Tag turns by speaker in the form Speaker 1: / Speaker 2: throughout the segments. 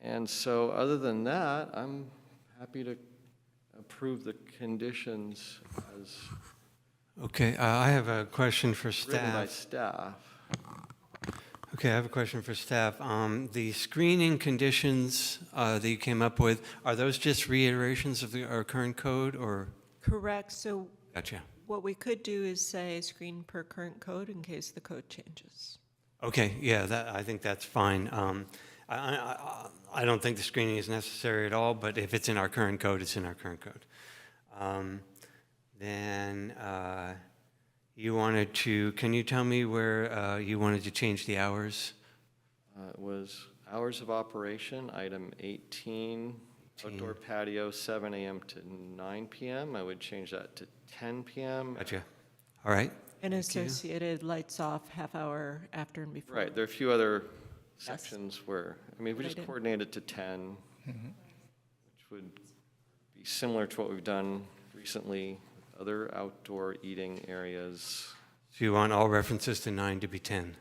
Speaker 1: And so, other than that, I'm happy to approve the conditions as
Speaker 2: Okay, uh, I have a question for
Speaker 1: written by
Speaker 2: staff.
Speaker 1: staff.
Speaker 2: Okay, I have a question for staff. Um, The screening conditions uh, that you came up with, are those just reiterations of the- our current code, or?
Speaker 3: Correct, so
Speaker 2: Gotcha.
Speaker 3: what we could do is say screen per current code in case the code changes.
Speaker 2: Okay, yeah, that, I think that's fine. Um, I, I, I- I don't think the screening is necessary at all, but if it's in our current code, it's in our current code. Um, Then uh, you wanted to, can you tell me where uh, you wanted to change the hours?
Speaker 1: Uh, It was hours of operation, item 18, outdoor patio, 7 AM to 9 PM. I would change that to 10 PM.
Speaker 2: Gotcha. All right,
Speaker 3: And associated lights off half hour after and before.
Speaker 1: Right, there are a few other sections where, I mean, if we
Speaker 3: But I
Speaker 1: just
Speaker 3: didn't-
Speaker 1: coordinate it to 10, which would be similar to what we've done recently, with other outdoor eating areas,
Speaker 2: so you want all references to nine to be 10,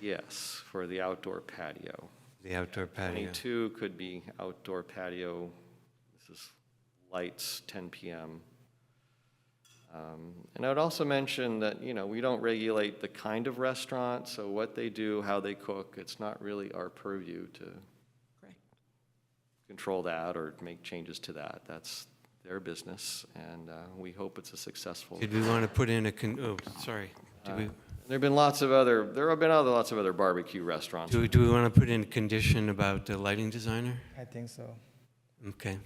Speaker 1: yes, for the outdoor patio.
Speaker 2: the outdoor patio?
Speaker 1: 22 could be outdoor patio, this is lights, 10 PM. Um, And I would also mention that, you know, we don't regulate the kind of restaurant, so what they do, how they cook, it's not really our purview to
Speaker 3: Correct.
Speaker 1: control that or make changes to that. That's their business, and uh, we hope it's a successful.
Speaker 2: Did we want to put in a, con- oh, sorry. Do we,
Speaker 1: There've been lots of other, there have been other, lots of other barbecue restaurants.
Speaker 2: do we- do we want to put in a condition about the lighting designer?
Speaker 4: I think so.
Speaker 2: Okay,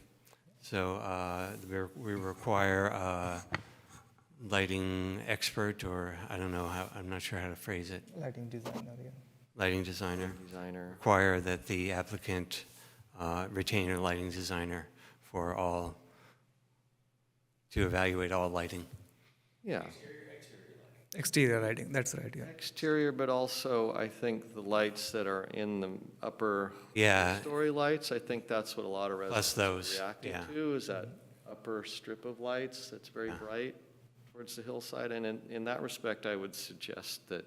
Speaker 2: so uh, we're- we require a lighting expert, or I don't know how, I'm not sure how to phrase it,
Speaker 4: Lighting designer, yeah.
Speaker 2: lighting designer,
Speaker 1: Designer,
Speaker 2: require that the applicant uh, retain a lighting designer for all, to evaluate all lighting.
Speaker 1: yeah.
Speaker 4: Exterior lighting, that's right, yeah.
Speaker 1: Exterior, but also, I think the lights that are in the upper
Speaker 2: Yeah,
Speaker 1: story lights, I think that's what a lot of residents
Speaker 2: those,
Speaker 1: are reacting
Speaker 2: yeah.
Speaker 1: to, is that upper strip of lights that's very bright towards the hillside. And in, in that respect, I would suggest that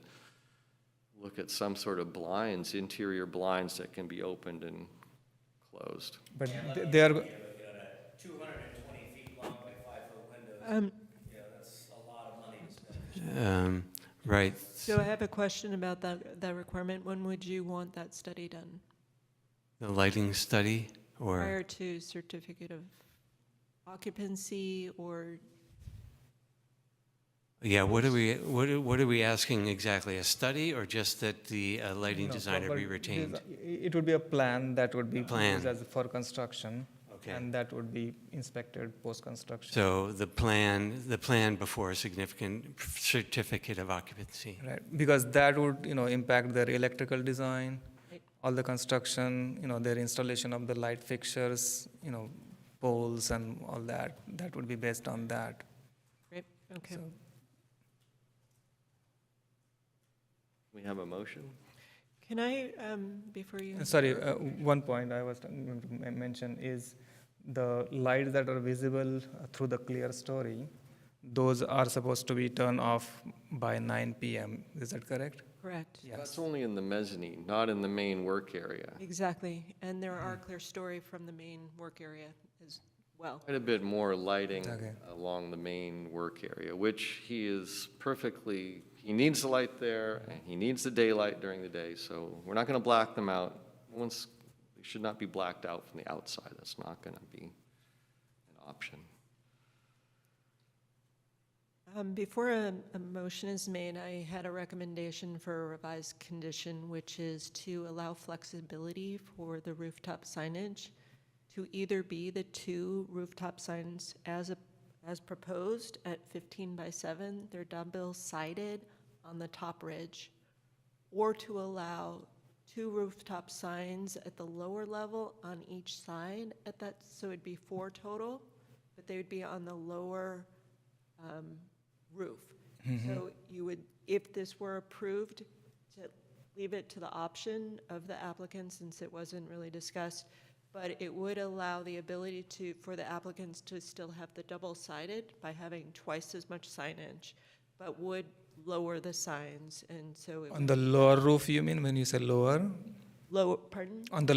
Speaker 1: look at some sort of blinds, interior blinds that can be opened and closed.
Speaker 4: But th- they are, go-
Speaker 5: two hundred and twenty feet long by five foot windows.
Speaker 2: Uh,
Speaker 3: Um,
Speaker 5: Yeah, that's a lot of money to spend.
Speaker 2: um, right.
Speaker 3: So I have a question about that, that requirement. When would you want that study done?
Speaker 2: The lighting study, or,
Speaker 3: Prior to certificate of occupancy or,
Speaker 2: yeah, what are we, what are what are we asking exactly? A study, or just that the uh, lighting
Speaker 4: no,
Speaker 2: designer
Speaker 4: but
Speaker 2: be
Speaker 4: these
Speaker 2: retained?
Speaker 4: are- i- It would be a plan that would be
Speaker 2: Plan.
Speaker 4: used as for construction.
Speaker 2: Okay.
Speaker 4: And that would be inspected post-construction.
Speaker 2: So the plan, the plan before a significant certificate of occupancy.
Speaker 4: Right, because that would, you know, impact their electrical design,
Speaker 3: Right.
Speaker 4: all the construction, you know, their installation of the light fixtures, you know, poles and all that. That would be based on that.
Speaker 3: right, okay.
Speaker 4: So-
Speaker 1: We have a motion?
Speaker 3: Can I, um, before you?
Speaker 4: Sorry, uh, one point I was going to men- mention is the lights that are visible uh, through the clear story, those are supposed to be turned off by 9 p.m. Is that correct?
Speaker 3: Correct.
Speaker 1: That's only in the mezzanine, not in the main work area.
Speaker 3: Exactly, and there are clear story from the main work area as well.
Speaker 1: Quite a bit more lighting
Speaker 4: Okay.
Speaker 1: along the main work area, which he is perfectly, he needs the light there, and he needs the daylight during the day, so we're not gonna black them out. Once, they should not be blacked out from the outside, that's not gonna be an option.
Speaker 3: Um, Before a, a motion is made, I had a recommendation for a revised condition, which is to allow flexibility for the rooftop signage to either be the two rooftop signs as, a- as proposed at 15 by 7, they're double sided on the top ridge, or to allow two rooftop signs at the lower level on each side at that, so it'd be four total, but they would be on the lower um, roof. So you would, if this were approved, to leave it to the option of the applicant, since it wasn't really discussed, but it would allow the ability to, for the applicants to still have the double-sided by having twice as much signage, but would lower the signs, and so it
Speaker 4: On
Speaker 3: would
Speaker 4: the lower roof, you mean, when you say lower?
Speaker 3: lower, pardon?
Speaker 4: On the